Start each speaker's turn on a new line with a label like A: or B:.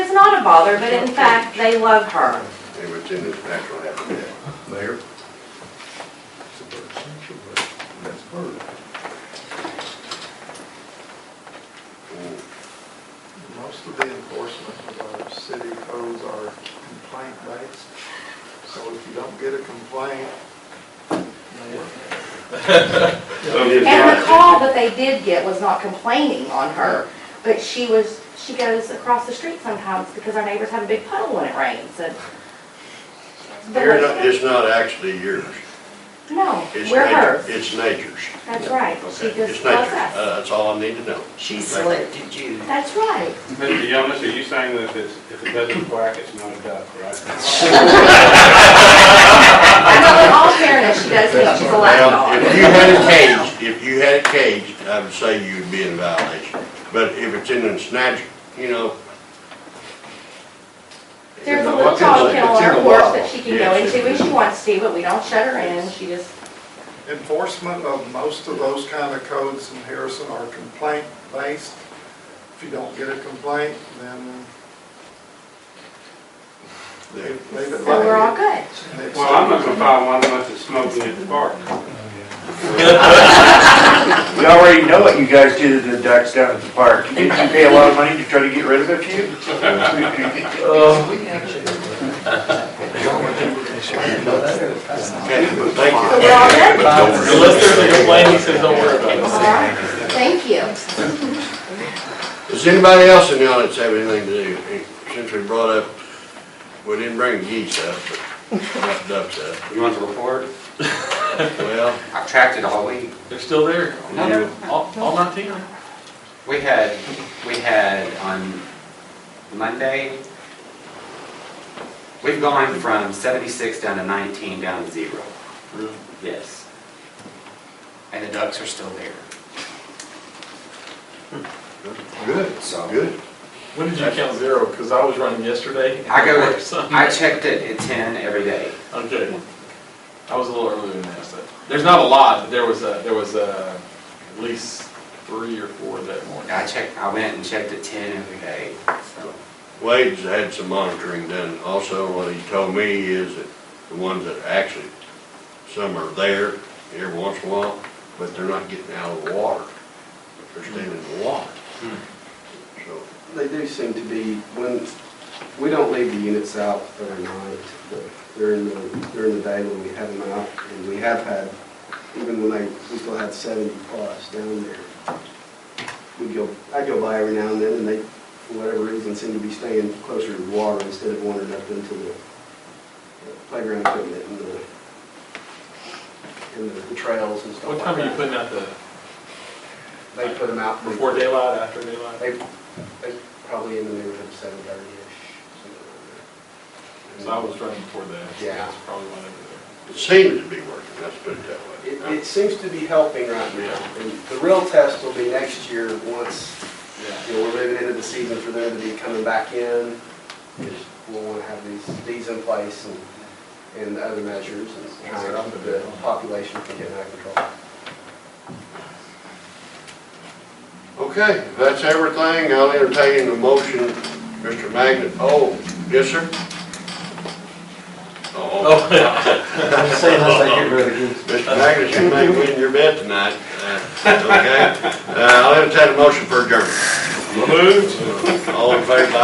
A: father, but in fact, they love her.
B: They were in its natural habitat.
C: Mayor?
B: It's a bird, it's a bird, that's a bird.
D: Most of the enforcement of our city codes are complaint-based, so if you don't get a complaint, Mayor,
A: And the call that they did get was not complaining on her, but she was, she goes across the street sometimes because our neighbors have a big puddle when it rains and.
B: You're not, it's not actually yours.
A: No,
B: It's
A: we're
B: nat-
A: hers.
B: It's nature's.
A: That's right. She
B: Okay,
A: just
B: It's
A: loves
B: nature's.
A: us.
B: Uh, that's all I need to know.
E: She selected you.
A: That's right.
F: Mr. Jonas, are you saying that if it's, if it doesn't quack, it's not a duck, right?
A: And but in all fairness, she does think she's a
B: Now,
A: lapdog.
B: if you had it caged, if you had it caged, I would say you'd be in violation. But if it's in its natural, you know,
A: There's a little
B: Well, it's in the-
A: dog kennel
B: it's
A: on
B: in
A: her
B: the
A: porch
B: wild.
A: that she can
B: Yeah,
A: go
B: it's in
A: into when
B: the-
A: she wants to, but we don't shut her in. She just,
D: enforcement of most of those kind of codes in Harrison are complaint-based. If you don't get a complaint, then they
B: there-
D: they
A: so we're all good.
D: They-
F: Well, I'm not gonna buy one unless it's smoking at the park.
C: We already know what you guys did to the ducks down at the park. Didn't you pay a lot of money to try to get rid of a few?
B: okay, but thank you.
A: So we're all good?
G: Unless there's a complaint, he says, don't worry about it.
A: All right. Thank you.
B: Does anybody else in the audience have anything to do? Since we brought up, we didn't bring geese up, but not ducks up.
H: You want the report?
B: Well,
H: I've tracked it all week.
G: They're still there,
B: you,
G: all, all nineteen of them.
H: We had, we had on Monday, we've gone from 76 down to 19, down to zero.
G: Really?
H: Yes. And the ducks are still there.
B: good,
H: So-
B: good.
G: When did you count zero? Because I was running yesterday.
H: I go,
G: Or something.
H: I checked it at 10 every day.
G: Okay. I was a little earlier than that, so. There's not a lot, but there was a, there was a, at least three or four that morning.
H: I checked, I went and checked at 10 every day, so.
B: Wade's had some monitoring done. Also, what he told me is that the ones that actually, some are there every once in a while, but they're not getting out of the water. They're staying in the water. So,
I: They do seem to be, when, we don't leave the units out at night, but during the, during the day when we have them out, and we have had, even when they, we still had seventy plus down there. We go, I go by every now and then, and they, for whatever reason, seem to be staying closer to the water instead of wandering up into the playground equipment and the, and the trails and stuff
G: What
I: like that.
G: time are you putting out the,
I: They put them out.
G: before daylight, after daylight?
I: They, they probably in the neighborhood of seven thirty-ish.
G: So I was running before that. so
I: Yeah.
G: That's probably why they
B: it seems to be working, let's put it that way.
I: It, it seems to be helping right now, and the real test will be next year, once,
G: were there.
I: you know, we're moving into the season for them to be coming back in. Is We'll wanna have these, these in place and, and other measures and how the population can get under control.
B: Okay, if that's everything, I'll entertain the motion, Mr. Magnet. Oh, yes, sir? Oh, Mr. Magnet, you may be in your bed tonight, uh, okay? Uh, I'll entertain a motion for adjournment.
G: Moved.
B: All in favor,